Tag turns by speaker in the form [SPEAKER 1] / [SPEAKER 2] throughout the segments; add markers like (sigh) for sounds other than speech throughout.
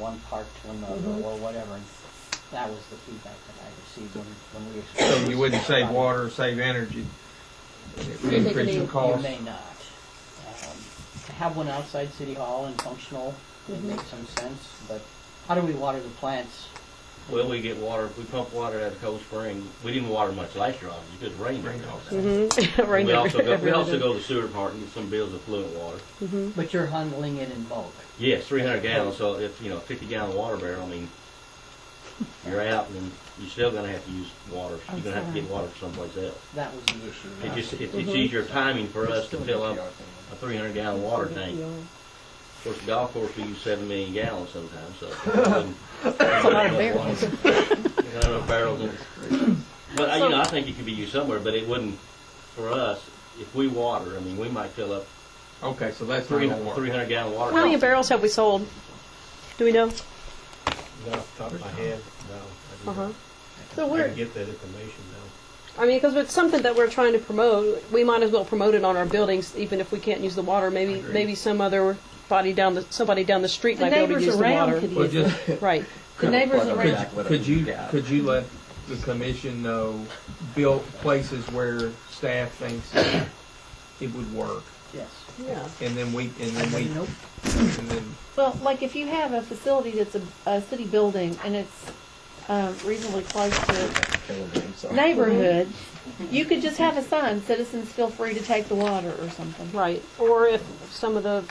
[SPEAKER 1] one park to another
[SPEAKER 2] Mm-hmm.
[SPEAKER 1] or whatever. And that was the feedback that I received when, when we. explained
[SPEAKER 3] So you
[SPEAKER 1] this
[SPEAKER 3] wouldn't
[SPEAKER 1] to
[SPEAKER 3] save
[SPEAKER 1] somebody.
[SPEAKER 3] water, save energy, it would
[SPEAKER 1] You
[SPEAKER 3] increase your
[SPEAKER 1] may- You
[SPEAKER 3] cost.
[SPEAKER 1] may not. Um, To have one outside City Hall and functional,
[SPEAKER 2] Mm-hmm.
[SPEAKER 1] it makes some sense, but how do we water the plants?
[SPEAKER 4] Well, we get water, we pump water out of Cold Spring. We didn't water much last year, obviously, because rain
[SPEAKER 3] Rain
[SPEAKER 4] rained all
[SPEAKER 3] all
[SPEAKER 4] the time.
[SPEAKER 2] (laughs) Rain
[SPEAKER 4] We also
[SPEAKER 2] every-
[SPEAKER 4] go, we
[SPEAKER 2] every
[SPEAKER 4] also
[SPEAKER 2] day.
[SPEAKER 4] go to sewer part and get some bills of fluent water.
[SPEAKER 1] But you're handling it in bulk.
[SPEAKER 4] Yes, three hundred gallons, so if, you know, fifty gallon water barrel, I mean, you're out and you're still gonna have to use water. You're gonna have to get water from someplace else.
[SPEAKER 1] That was the issue.
[SPEAKER 4] It
[SPEAKER 1] right?
[SPEAKER 4] just,
[SPEAKER 2] Mm-hmm.
[SPEAKER 4] it- it's easier timing for us to fill up a three hundred gallon water tank.
[SPEAKER 2] Yeah.
[SPEAKER 4] Of course, the golf course, we use seven million gallons sometimes, so. That's
[SPEAKER 2] a lot of
[SPEAKER 4] (laughs)
[SPEAKER 2] barrels.
[SPEAKER 4] Not enough barrels in it. But, uh, you know, I think it could be used somewhere, but it wouldn't, for us, if we water, I mean, we might fill up
[SPEAKER 3] Okay, so that's not
[SPEAKER 4] three,
[SPEAKER 3] gonna work.
[SPEAKER 4] three hundred gallon water.
[SPEAKER 2] How many
[SPEAKER 4] tanks.
[SPEAKER 2] barrels have we sold? Do we know?
[SPEAKER 5] Not off the top of my head, no. I do
[SPEAKER 2] Uh-huh.
[SPEAKER 5] not.
[SPEAKER 2] So
[SPEAKER 5] I
[SPEAKER 2] we're,
[SPEAKER 5] can get that information now.
[SPEAKER 2] I mean, because it's something that we're trying to promote, we might as well promote it on our buildings, even if we can't use the water. Maybe,
[SPEAKER 3] Agreed.
[SPEAKER 2] maybe some other body down the, somebody down the street
[SPEAKER 6] The
[SPEAKER 2] might be able to
[SPEAKER 6] neighbors
[SPEAKER 2] use the
[SPEAKER 6] around
[SPEAKER 2] water.
[SPEAKER 6] could
[SPEAKER 3] Well,
[SPEAKER 6] use it.
[SPEAKER 3] just,
[SPEAKER 2] Right.
[SPEAKER 6] The neighbors
[SPEAKER 3] could,
[SPEAKER 6] around.
[SPEAKER 3] could you, could you let the commission know, built places where staff thinks it would work?
[SPEAKER 1] Yes.
[SPEAKER 2] Yeah.
[SPEAKER 3] And then we, and then we,
[SPEAKER 1] Nope.
[SPEAKER 3] and then,
[SPEAKER 6] Well, like if you have a facility that's a, a city building and it's um, reasonably close to neighborhood, you could just have a sign, citizens feel free to take the water or something.
[SPEAKER 2] Right. Or if some of the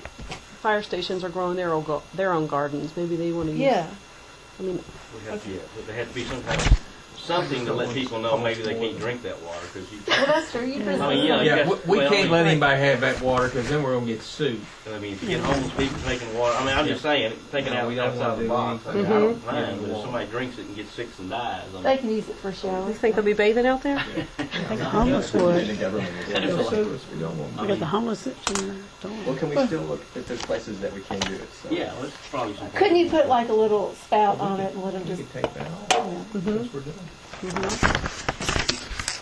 [SPEAKER 2] fire stations are growing their own, go- their own gardens, maybe they want to use.
[SPEAKER 6] Yeah,
[SPEAKER 2] I mean,
[SPEAKER 4] We have to, yeah, but there had to be some kind of, something to let people know maybe they can't drink that water, because you,
[SPEAKER 6] well, that's true, you
[SPEAKER 4] I mean, you
[SPEAKER 6] just,
[SPEAKER 4] know, you
[SPEAKER 3] Oh, yeah,
[SPEAKER 4] got-
[SPEAKER 3] we, we
[SPEAKER 4] well, I
[SPEAKER 3] can't
[SPEAKER 4] mean-
[SPEAKER 3] let anybody have that water, because then we're gonna get sued.
[SPEAKER 4] I mean, if you get homeless people taking water, I mean, I'm just saying, thinking
[SPEAKER 3] No,
[SPEAKER 4] out
[SPEAKER 3] we don't
[SPEAKER 4] outside
[SPEAKER 3] wanna
[SPEAKER 4] the
[SPEAKER 3] do
[SPEAKER 4] box, I mean, I
[SPEAKER 3] anything.
[SPEAKER 2] Mm-hmm.
[SPEAKER 3] Mhm.
[SPEAKER 4] don't mind, but if somebody drinks it and gets sick and dies, I mean.
[SPEAKER 6] they can use it for showers.
[SPEAKER 2] you think they'll be bathing out there?
[SPEAKER 7] The homeless would,
[SPEAKER 4] I just feel like-
[SPEAKER 3] We don't want-
[SPEAKER 4] I
[SPEAKER 7] but the
[SPEAKER 4] mean,
[SPEAKER 7] homeless don't.
[SPEAKER 8] Well, can we still look if there's places that we can do it? So.
[SPEAKER 4] Yeah, well, it's probably some.
[SPEAKER 6] Couldn't you put like a little spout on it and let them
[SPEAKER 3] We
[SPEAKER 6] just,
[SPEAKER 3] could take that off,
[SPEAKER 2] Oh,
[SPEAKER 3] since
[SPEAKER 2] Mm-hmm.
[SPEAKER 3] we're done.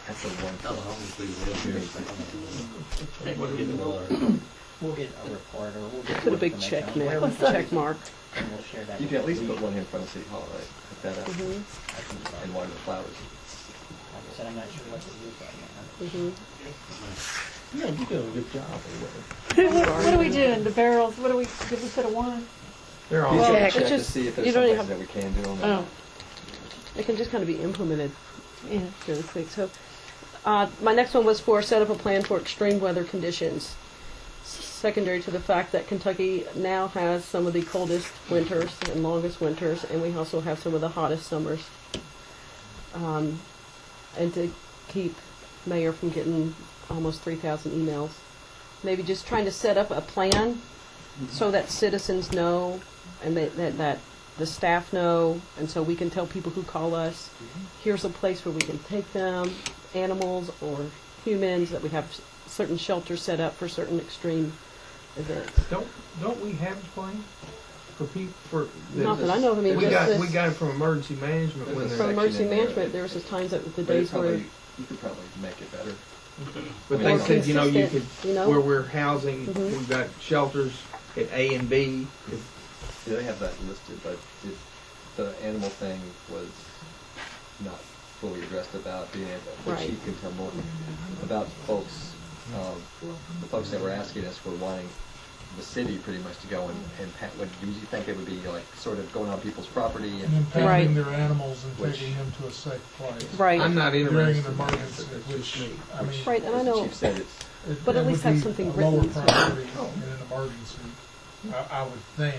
[SPEAKER 8] That's the one.
[SPEAKER 4] Tell the homeless people live
[SPEAKER 2] Oh.
[SPEAKER 4] here. They wouldn't get the water.
[SPEAKER 1] We'll get a report or we'll get.
[SPEAKER 2] Put a big
[SPEAKER 1] information
[SPEAKER 2] check
[SPEAKER 1] on
[SPEAKER 2] there,
[SPEAKER 1] whatever,
[SPEAKER 2] check mark.
[SPEAKER 1] And we'll share that.
[SPEAKER 8] You can at least
[SPEAKER 1] with
[SPEAKER 8] put
[SPEAKER 1] the-
[SPEAKER 8] one here in front of City Hall, right? Put that up
[SPEAKER 2] Mm-hmm.
[SPEAKER 8] and water the flowers.
[SPEAKER 1] Like I said, I'm not sure what to do right now.
[SPEAKER 5] Yeah, you're doing a good job.
[SPEAKER 6] what what are we doing, the barrels, what are we, did we put a one?
[SPEAKER 3] They're all.
[SPEAKER 8] You
[SPEAKER 2] Yeah,
[SPEAKER 8] can
[SPEAKER 2] it's
[SPEAKER 8] check to
[SPEAKER 2] just-
[SPEAKER 8] see if
[SPEAKER 2] you
[SPEAKER 8] there's
[SPEAKER 2] don't
[SPEAKER 8] some
[SPEAKER 2] even
[SPEAKER 8] places that we can do them.
[SPEAKER 6] Oh,
[SPEAKER 2] It can just kind of be implemented
[SPEAKER 6] yeah,
[SPEAKER 2] really quick. So, uh, my next one was for set up a plan for extreme weather conditions. Secondary to the fact that Kentucky now has some of the coldest winters and longest winters, and we also have some of the hottest summers. Um, and to keep mayor from getting almost 3,000 emails, maybe just trying to set up a plan so that citizens know and that, that, that the staff know, and so we can tell people who call us here's a place where we can take them, animals or humans, that we have s- certain shelters set up for certain extreme events.
[SPEAKER 3] Don't, don't we have a plan for people, for? the-
[SPEAKER 2] Not that I know of, I mean,
[SPEAKER 3] We
[SPEAKER 2] just
[SPEAKER 3] got,
[SPEAKER 2] this-
[SPEAKER 3] we got it from emergency management when they,
[SPEAKER 2] From
[SPEAKER 8] section
[SPEAKER 2] emergency
[SPEAKER 8] in there.
[SPEAKER 2] management, there was just times that the
[SPEAKER 8] But you
[SPEAKER 2] days were,
[SPEAKER 8] probably, you could probably make it better.
[SPEAKER 3] but they
[SPEAKER 8] Or
[SPEAKER 3] said, you know, you could,
[SPEAKER 2] consistent, you know?
[SPEAKER 3] where we're housing,
[SPEAKER 2] Mhm.
[SPEAKER 3] we've got shelters at A and B. If-
[SPEAKER 8] Do they have that listed? But if the animal thing was not fully addressed about being able, which
[SPEAKER 2] Right.
[SPEAKER 8] you can tell more about folks, um, the folks that were asking us were wanting the city pretty much to go and, and pat, would, do you think it would be like sort of going on people's property and
[SPEAKER 9] and
[SPEAKER 2] Right.
[SPEAKER 9] impacting their animals and
[SPEAKER 8] Which-
[SPEAKER 9] taking them to a safe place.
[SPEAKER 3] I'm
[SPEAKER 2] right,
[SPEAKER 3] not
[SPEAKER 9] During
[SPEAKER 3] interested
[SPEAKER 9] an
[SPEAKER 3] in that,
[SPEAKER 9] emergency,
[SPEAKER 3] so that's just
[SPEAKER 9] which,
[SPEAKER 3] me.
[SPEAKER 9] I mean.
[SPEAKER 2] right, and I
[SPEAKER 8] as the
[SPEAKER 2] know,
[SPEAKER 8] chief said, it's,
[SPEAKER 9] it-
[SPEAKER 2] But at
[SPEAKER 9] it would
[SPEAKER 2] least have
[SPEAKER 9] be
[SPEAKER 2] something
[SPEAKER 9] a
[SPEAKER 2] written.
[SPEAKER 9] Lower priority in an emergency. I, I would think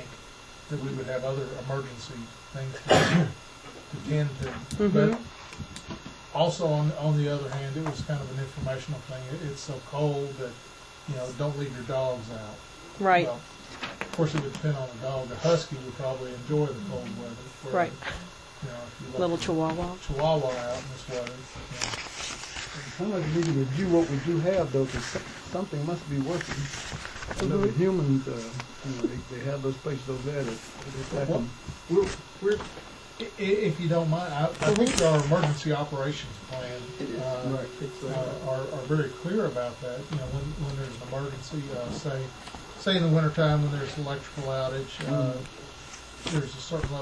[SPEAKER 9] that we would have other emergency things to (coughs) to tend to. But
[SPEAKER 2] Mhm.
[SPEAKER 9] also on, on the other hand, it was kind of an informational thing. It- It's so cold that, you know, don't leave your dogs out.
[SPEAKER 2] right,
[SPEAKER 9] Well, Of course, it would depend on the dog. The husky would probably enjoy the cold weather. whereas,
[SPEAKER 2] Right.
[SPEAKER 9] You know, if you let
[SPEAKER 2] little
[SPEAKER 9] the
[SPEAKER 2] chihuahua.
[SPEAKER 9] Chihuahua out in this weather, you know,
[SPEAKER 10] Kind of need to review what we do have, though, because something must be working. I know the humans, uh, you know, they, they have those places over there that, that attack 'em.
[SPEAKER 9] We're, we're, i- i- if you don't mind, I, I think our emergency operations plan, uh,
[SPEAKER 10] Right, it's, uh,
[SPEAKER 9] uh, are, are very clear about that, you know, when, when there's
[SPEAKER 10] Mm.
[SPEAKER 9] an emergency, uh, say, say in the wintertime when there's electrical outage, uh, there's a certain level